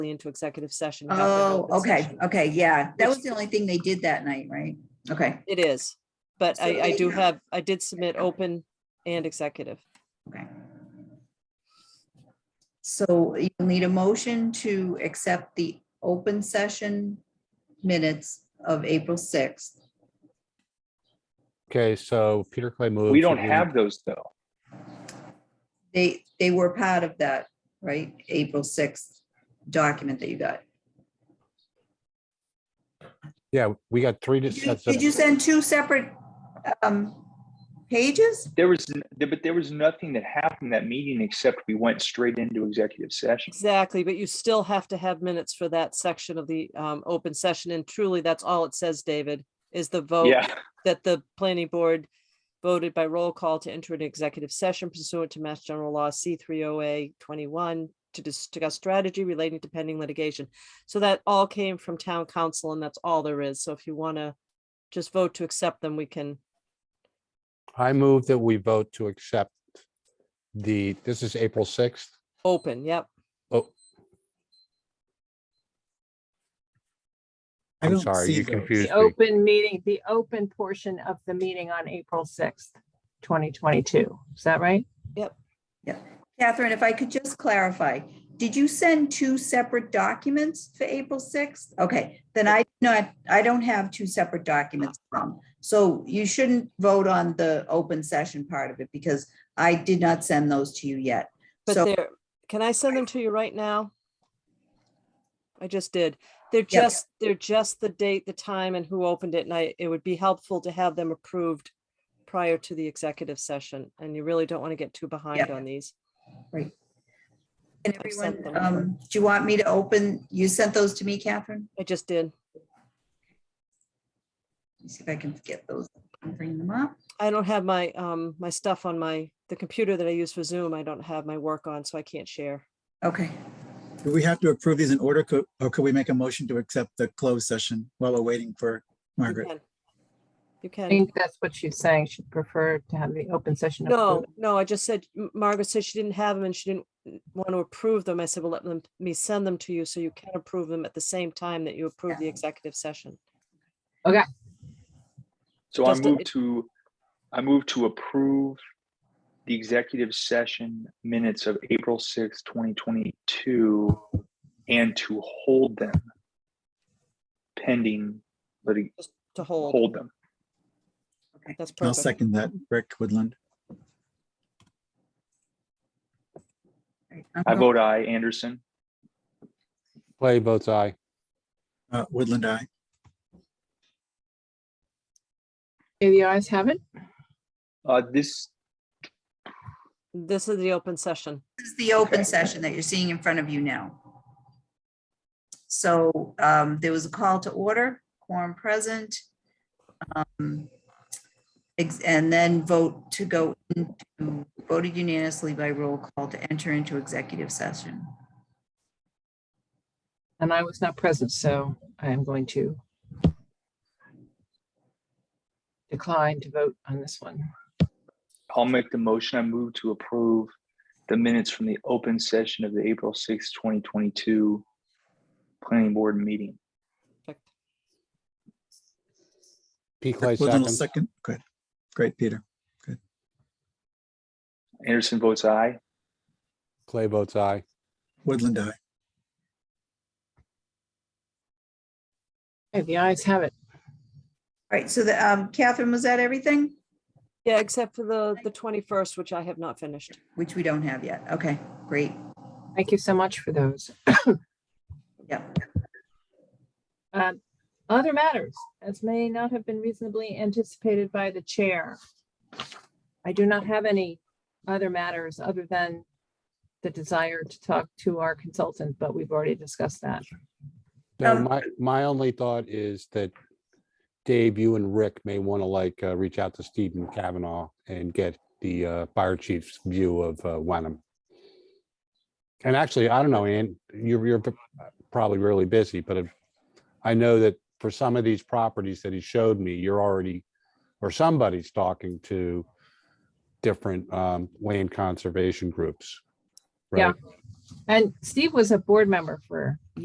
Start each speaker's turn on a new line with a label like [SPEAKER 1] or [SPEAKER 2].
[SPEAKER 1] into executive session. not an
[SPEAKER 2] Oh,
[SPEAKER 1] open
[SPEAKER 2] okay,
[SPEAKER 1] session.
[SPEAKER 2] okay, yeah. That
[SPEAKER 1] Which-
[SPEAKER 2] was the only thing they did that night, right? Okay,
[SPEAKER 1] It is, but
[SPEAKER 2] So
[SPEAKER 1] I, I
[SPEAKER 2] they
[SPEAKER 1] do
[SPEAKER 2] have-
[SPEAKER 1] have, I did submit open and executive.
[SPEAKER 2] okay. So you need a motion to accept the open session minutes of April sixth.
[SPEAKER 3] Okay, so Peter Clay moved.
[SPEAKER 4] We don't have those though.
[SPEAKER 2] They, they were part of that, right? April sixth document that you got.
[SPEAKER 3] Yeah, we got three. dis-
[SPEAKER 2] Did you-
[SPEAKER 3] sets of-
[SPEAKER 2] did you send two separate um pages?
[SPEAKER 4] There was, n- there- but there was nothing that happened in that meeting except we went straight into executive session.
[SPEAKER 1] Exactly, but you still have to have minutes for that section of the um, open session. And truly, that's all it says, David, is the vote
[SPEAKER 4] Yeah,
[SPEAKER 1] that the planning board voted by roll call to enter an executive session pursuant to Mass General Law C three oh A twenty-one to discuss strategy relating to pending litigation. So that all came from town council and that's all there is. So if you want to just vote to accept them, we can.
[SPEAKER 3] I move that we vote to accept the, this is April 6th.
[SPEAKER 1] Open, yep.
[SPEAKER 5] I
[SPEAKER 3] I'm
[SPEAKER 5] don't
[SPEAKER 3] sorry,
[SPEAKER 5] see
[SPEAKER 3] you
[SPEAKER 5] those.
[SPEAKER 3] confused
[SPEAKER 6] The
[SPEAKER 3] me.
[SPEAKER 6] open meeting, the open portion of the meeting on April sixth, twenty twenty-two. Is that right?
[SPEAKER 2] Catherine, if I could just clarify, did you send two separate documents for April 6th? Okay, then I, no, I don't have two separate documents from. So you shouldn't vote on the open session part of it because I did not send those to you yet.
[SPEAKER 1] But
[SPEAKER 2] So-
[SPEAKER 1] they're, can I send them to you right now? I just did. They're
[SPEAKER 2] Yeah.
[SPEAKER 1] just, they're just the date, the time and who opened it. And I, it would be helpful to have them approved prior to the executive session. And you really don't want to get too behind
[SPEAKER 2] Yeah.
[SPEAKER 1] on these.
[SPEAKER 2] And
[SPEAKER 1] I've sent
[SPEAKER 2] everyone,
[SPEAKER 1] them.
[SPEAKER 2] um, do you want me to open, you sent those to me, Catherine?
[SPEAKER 1] I just did.
[SPEAKER 2] Let me see if I can get those, and bring them up.
[SPEAKER 1] I don't have my, um, my stuff on my, the computer that I use for Zoom. I don't have my work on, so I can't share.
[SPEAKER 2] Okay,
[SPEAKER 5] Do we have to approve these in order, Co- or could we make a motion to accept the closed session while we're waiting for
[SPEAKER 1] You
[SPEAKER 5] Margaret?
[SPEAKER 1] can. You
[SPEAKER 6] I
[SPEAKER 1] can.
[SPEAKER 6] think that's what she's saying. She'd prefer to have the open session.
[SPEAKER 1] No,
[SPEAKER 6] approved.
[SPEAKER 1] no, I just said, M- Margaret said she didn't have them and she didn't want to approve them. I said, well, let them, me send them to you so you can approve them at the same time that you approve the executive session.
[SPEAKER 4] so I
[SPEAKER 1] Just a-
[SPEAKER 4] moved to, I moved to approve the executive session minutes of April sixth, twenty twenty-two, and to hold them pending, litig-
[SPEAKER 1] To hold,
[SPEAKER 4] hold them.
[SPEAKER 1] that's
[SPEAKER 5] I'll
[SPEAKER 1] perfect.
[SPEAKER 5] second that, Rick Woodland.
[SPEAKER 2] all right, I'm
[SPEAKER 4] I
[SPEAKER 2] going-
[SPEAKER 4] vote aye. Anderson,
[SPEAKER 3] Clay votes aye.
[SPEAKER 5] Uh, Woodland, I.
[SPEAKER 6] Okay, The ayes have it.
[SPEAKER 4] uh, this,
[SPEAKER 1] This is the open session.
[SPEAKER 2] This is the open session that you're seeing in front of you now. So um, there was a call to order, quorum present. um, ex- And then vote to go into, voted unanimously by roll call to enter into executive session.
[SPEAKER 6] And I was not present, so I am going to decline to vote on this one.
[SPEAKER 4] I'll make the motion. I move to approve the minutes from the open session of the April sixth, twenty twenty-two planning board meeting.
[SPEAKER 1] Perfect.
[SPEAKER 3] P. Clay
[SPEAKER 5] Rick Woodland will
[SPEAKER 3] seconds.
[SPEAKER 5] second. Good. Great, Peter.
[SPEAKER 4] Anderson votes aye.
[SPEAKER 3] Clay votes aye.
[SPEAKER 5] Woodland, I.
[SPEAKER 6] Okay, The ayes have it.
[SPEAKER 2] All right, so the, um, Catherine, was that everything?
[SPEAKER 1] Yeah, except for the, the twenty-first, which I have not finished.
[SPEAKER 2] Which we don't have yet. Okay, great.
[SPEAKER 6] Thank you so much for those.
[SPEAKER 2] Yeah.
[SPEAKER 6] Um, Other matters, as may not have been reasonably anticipated by the chair. I do not have any other matters other than the desire to talk to our consultant, but we've already discussed that.
[SPEAKER 3] So
[SPEAKER 2] Um,
[SPEAKER 3] my, my only thought is that Dave, you and Rick may want to like, uh, reach out to Stephen Kavanaugh and get the, uh, fire chief's view of, uh, Wenham. And actually, I don't know, Ann, you're, you're probably really busy, but if- I know that for some of these properties that he showed me, you're already, or somebody's talking to different, um, land conservation groups.
[SPEAKER 6] Yeah.
[SPEAKER 3] right?
[SPEAKER 6] And Steve was a board member for